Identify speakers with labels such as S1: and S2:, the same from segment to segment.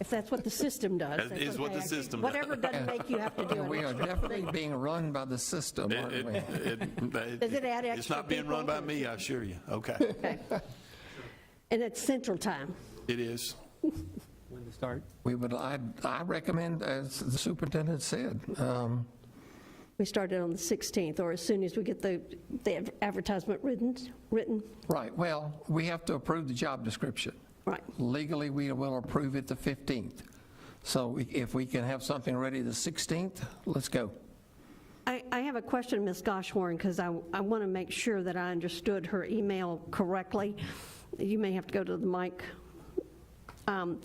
S1: If that's what the system does.
S2: That
S1: that's
S2: is what the
S1: okay.
S2: system does.
S1: Whatever doesn't make you have to do it.
S3: We are definitely being run by the system,
S2: It-
S3: aren't we?
S2: it- it-
S1: Does it add
S2: It's
S1: extra
S2: not being run
S1: people?
S2: by me, I assure you. Okay,
S1: Okay. And it's central time.
S2: it is.
S4: When to start?
S3: We would, I, I recommend, as the superintendent said, um,
S1: We started on the 16th, or as soon as we get the, the advertisement written, written,
S3: right, well, we have to approve the job description.
S1: right.
S3: Legally, we will approve it the 15th. So we- if we can have something ready the 16th, let's go.
S1: I, I have a question, Ms. Goshorn, because I, I want to make sure that I understood her email correctly. You may have to go to the mic. Um,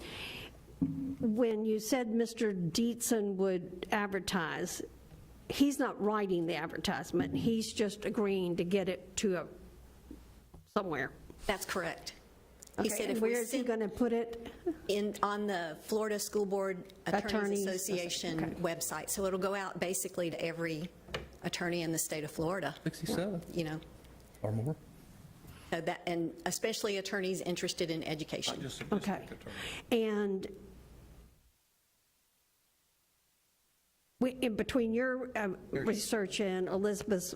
S1: When you said Mr. Dietzen would advertise, he's not writing the advertisement, he's just agreeing to get it to a, somewhere.
S5: That's correct. He
S1: Okay,
S5: said
S1: and
S5: if we
S1: Where is he
S5: sent
S1: going to put it?
S5: in, on the Florida School Board
S1: Attorneys,
S5: Attorneys
S1: okay.
S5: Association website, so it'll go out basically to every attorney in the state of Florida,
S4: 67
S5: you know,
S4: or more.
S5: So that- and especially attorneys interested in education.
S1: Okay. And we- in between your um, research and Elizabeth's,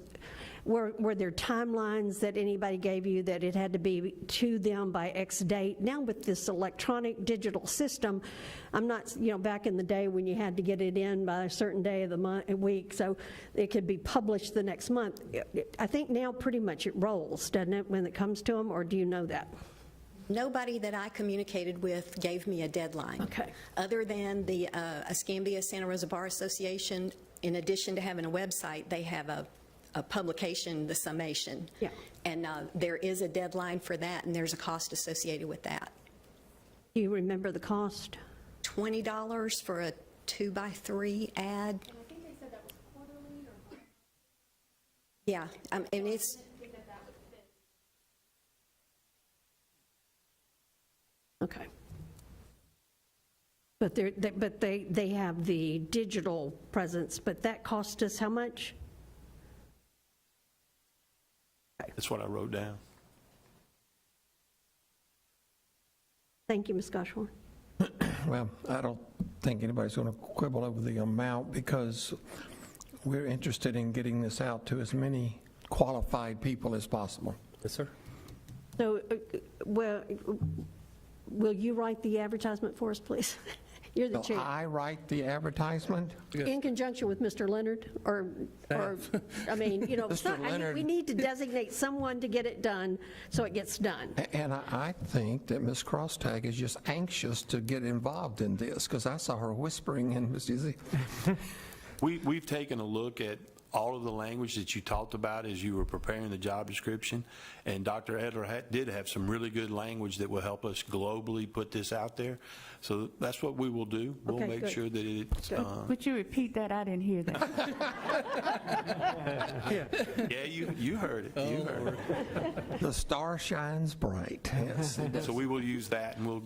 S1: were, were there timelines that anybody gave you that it had to be to them by X date? Now with this electronic digital system, I'm not, you know, back in the day when you had to get it in by a certain day of the month, week, so it could be published the next month. I think now pretty much it rolls, doesn't it, when it comes to them, or do you know that?
S5: Nobody that I communicated with gave me a deadline.
S1: Okay.
S5: Other than the uh, Escambia Santa Rosa Bar Association, in addition to having a website, they have a, a publication, the summation.
S1: Yeah.
S5: And uh, there is a deadline for that, and there's a cost associated with that.
S1: Do you remember the cost?
S5: $20 for a two-by-three ad.
S6: I think they said that was quarterly or
S5: Yeah, um, and it's,
S6: think that that would fit.
S1: Okay. But they're, they- but they, they have the digital presence, but that cost us how much?
S2: That's what I wrote down.
S1: Thank you, Ms. Goshorn.
S3: Well, I don't think anybody's going to quibble over the amount because we're interested in getting this out to as many qualified people as possible.
S4: Yes, sir.
S1: So, uh, well, will you write the advertisement for us, please? You're the
S3: Will
S1: chair.
S3: I write the advertisement?
S1: In conjunction with Mr. Leonard, or, or, I mean, you know,
S3: Mr.
S1: some- I mean,
S3: Leonard.
S1: we need to designate someone to get it done, so it gets done.
S3: A- And I- I think that Ms. Crosstag is just anxious to get involved in this because I saw her whispering and Ms. Dizzy.
S2: We, we've taken a look at all of the language that you talked about as you were preparing the job description, and Dr. Edler had, did have some really good language that will help us globally put this out there. So that's what we will do. We'll
S1: Okay,
S2: make
S1: good.
S2: sure that it's, uh,
S7: Would you repeat that? I didn't hear that.
S2: yeah, you, you heard it, you heard it.
S3: The star shines bright. Yes.
S2: So we will use that, and we'll,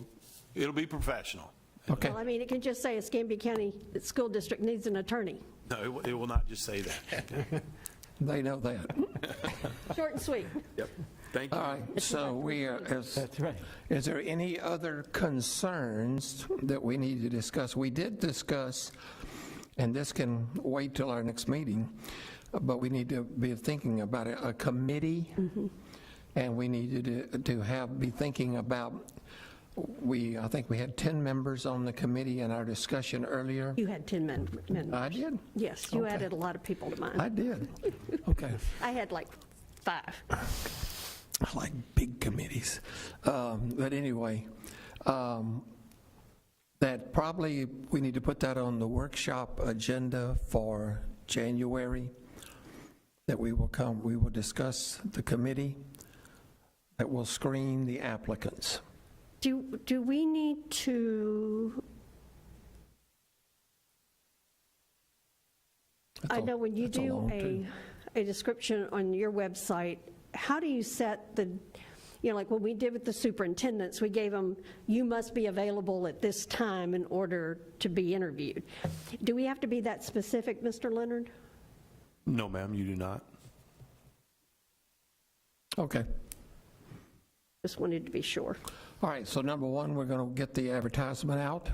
S2: it'll be professional.
S3: Okay.
S1: Well, I mean, it can just say Escambia County School District needs an attorney.
S2: No, it will- it will not just say that.
S3: They know that.
S1: Short and sweet.
S2: Yep. Thank you.
S3: All right. So we are, is,
S4: That's right.
S3: is there any other concerns that we need to discuss? We did discuss, and this can wait till our next meeting, but we need to be thinking about a a committee.
S1: Mm-hmm.
S3: And we needed to- to have, be thinking about, we, I think we had 10 members on the committee in our discussion earlier.
S1: You had 10 men, men.
S3: I did?
S1: Yes, you
S3: Okay.
S1: added a lot of people to
S3: I
S1: mine.
S3: did. Okay.
S1: I had like five.
S3: I like big committees. Um, But anyway, um, that probably, we need to put that on the workshop agenda for January, that we will come, we will discuss the committee that will screen the applicants.
S1: Do, do we need to, I
S3: That's a-
S1: know when you
S3: that's a
S1: do
S3: long
S1: a,
S3: two.
S1: a description on your website, how do you set the, you know, like when we did with the superintendents, we gave them, you must be available at this time in order to be interviewed. Do we have to be that specific, Mr. Leonard?
S2: No, ma'am, you do not.
S3: Okay.
S1: Just wanted to be sure.
S3: All right, so number one, we're going to get the advertisement out.